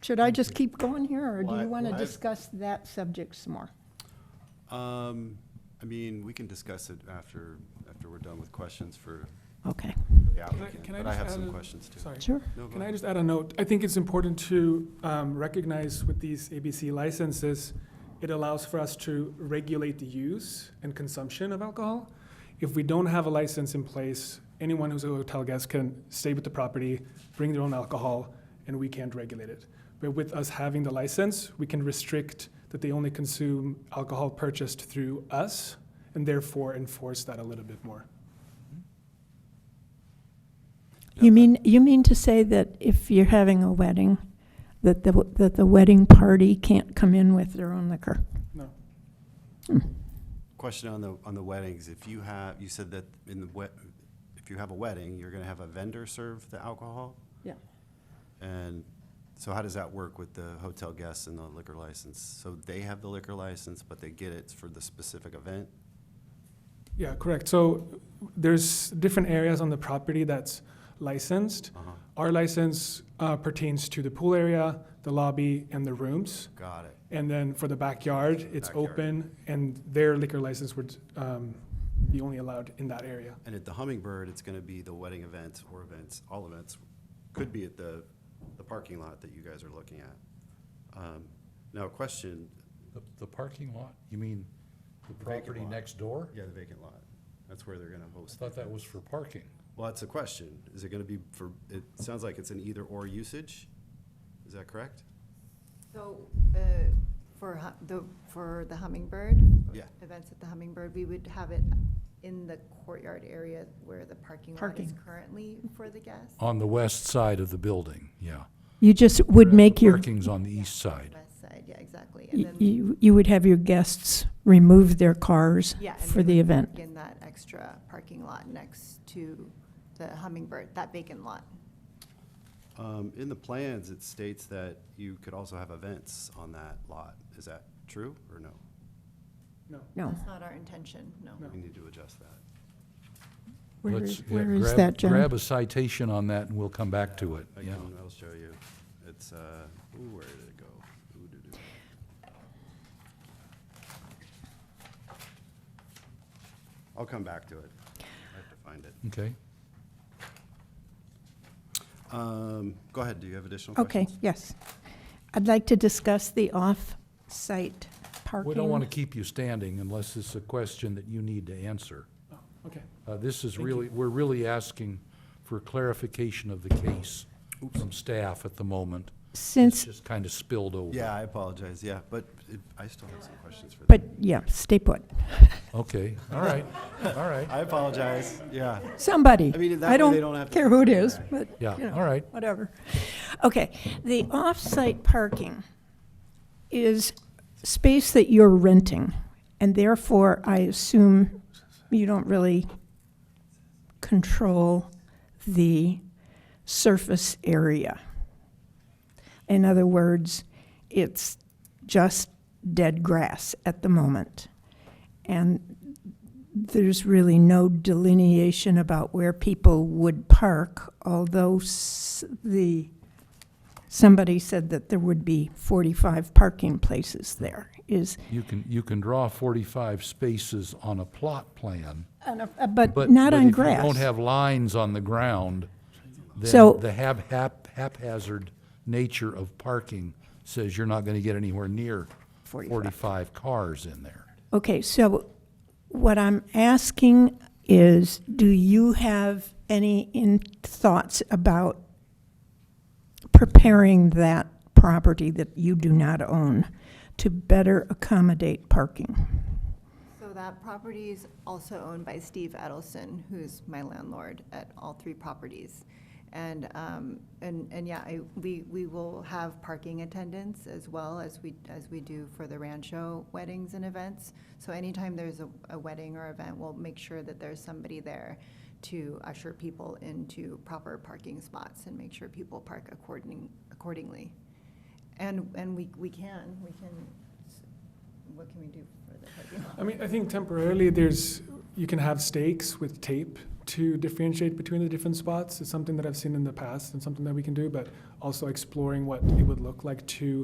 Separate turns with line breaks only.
Should I just keep going here, or do
Well, I-
you want to
well, I-
discuss that subject some more?
Um, I mean, we can discuss it after, after we're done with questions for
Okay.
the
I-
applicant,
can I
but I
just
have
add
some
a-
questions too.
Sorry.
Sure.
No, go
Can I
ahead.
just add a note? I think it's important to um, recognize with these ABC licenses, it allows for us to regulate the use and consumption of alcohol. If we don't have a license in place, anyone who's a hotel guest can stay with the property, bring their own alcohol, and we can't regulate it. But with us having the license, we can restrict that they only consume alcohol purchased through us, and therefore enforce that a little bit more.
Yeah,
You mean, you mean to say that if you're having a wedding, that the, that the wedding party can't come in with their own liquor?
No.
Question on the, on the weddings, if you have, you said that in the wet, if you have a wedding, you're gonna have a vendor serve the alcohol?
Yeah.
And so how does that work with the hotel guests and the liquor license? So they have the liquor license, but they get it for the specific event?
Yeah, correct. So there's different areas on the property that's licensed.
Uh-huh,
Our license uh, pertains to the pool area, the lobby, and the rooms.
got it.
And then for the backyard, it's
Backyard.
open, and their liquor license would um, be only allowed in that area.
And at the Hummingbird, it's gonna be the wedding event or events, all events, could be at the, the parking lot that you guys are looking at. Um, Now, a question,
The, the parking lot, you mean the
vacant
property
lot.
next door?
yeah, the vacant lot, that's where they're gonna
I
host.
thought
the
that
event.
was for parking.
Well, that's a question, is it gonna be for, it sounds like it's an either-or usage, is that correct?
So, uh, for hu- the, for the Hummingbird?
Yeah.
Events at the Hummingbird, we would have it in the courtyard area where the parking lot is
Parking.
currently for the guests?
On the west side of the building, yeah.
You just would
Whereas the
make your,
Parking's on the
Yeah,
east side.
West side, yeah, exactly. And
y-
then,
you, you would have your guests remove their cars
yeah. and
for
we
the
would
event.
park In that extra parking lot next to the Hummingbird, that vacant lot.
Um, In the plans, it states that you could also have events on that lot, is that true or no?
No.
No.
That's not our intention, no.
No.
We need to adjust that,
Where
Let's-
is,
yeah,
where is
grab-
that, John?
Grab a citation on that and we'll come back to it,
I
yeah.
can, I'll show you, it's, uh, ooh, where did it go? Ooh, doo, doo. I'll come back to it, I have to find it.
Okay,
Um, Go ahead, do you have additional
Okay,
questions?
yes. I'd like to discuss the off-site parking.
we don't want to keep you standing unless it's a question that you need to answer.
Oh, okay.
Uh, this is
Thank you.
really, we're really asking for clarification of the case from staff at the moment. It's
Since,
just kind of spilled over.
Yeah, I apologize, yeah, but it- I still have some questions for them.
but, yeah, stay put.
Okay, all right, all right.
I apologize, yeah.
Somebody.
I mean, that
I
way
don't
they don't have to-
care who it is, but
Yeah,
you know,
all right.
Whatever. Okay, the off-site parking is space that you're renting, and therefore, I assume you don't really control the surface area. In other words, it's just dead grass at the moment. And there's really no delineation about where people would park, although s- the, somebody said that there would be 45 parking places there, is,
You can, you can draw 45 spaces on a plot plan,
uh, but
but.
not
but
on
If you
grass.
don't have lines on the ground,
So-
then the hap, hap- haphazard nature of parking says you're not going to get anywhere near
45.
45 cars in there.
Okay, so what I'm asking is, do you have any in thoughts about preparing that property that you do not own to better accommodate parking?
So that property is also owned by Steve Edelson, who's my landlord at all three properties. And, um, and, and yeah, I, we, we will have parking attendants as well as we, as we do for the Rancho weddings and events. So anytime there's a, a wedding or event, we'll make sure that there's somebody there to usher people into proper parking spots and make sure people park according, accordingly. And, and we, we can, we can, what can we do for the parking lot?
I mean, I think temporarily there's, you can have stakes with tape to differentiate between the different spots. It's something that I've seen in the past and something that we can do, but also exploring what it would look like to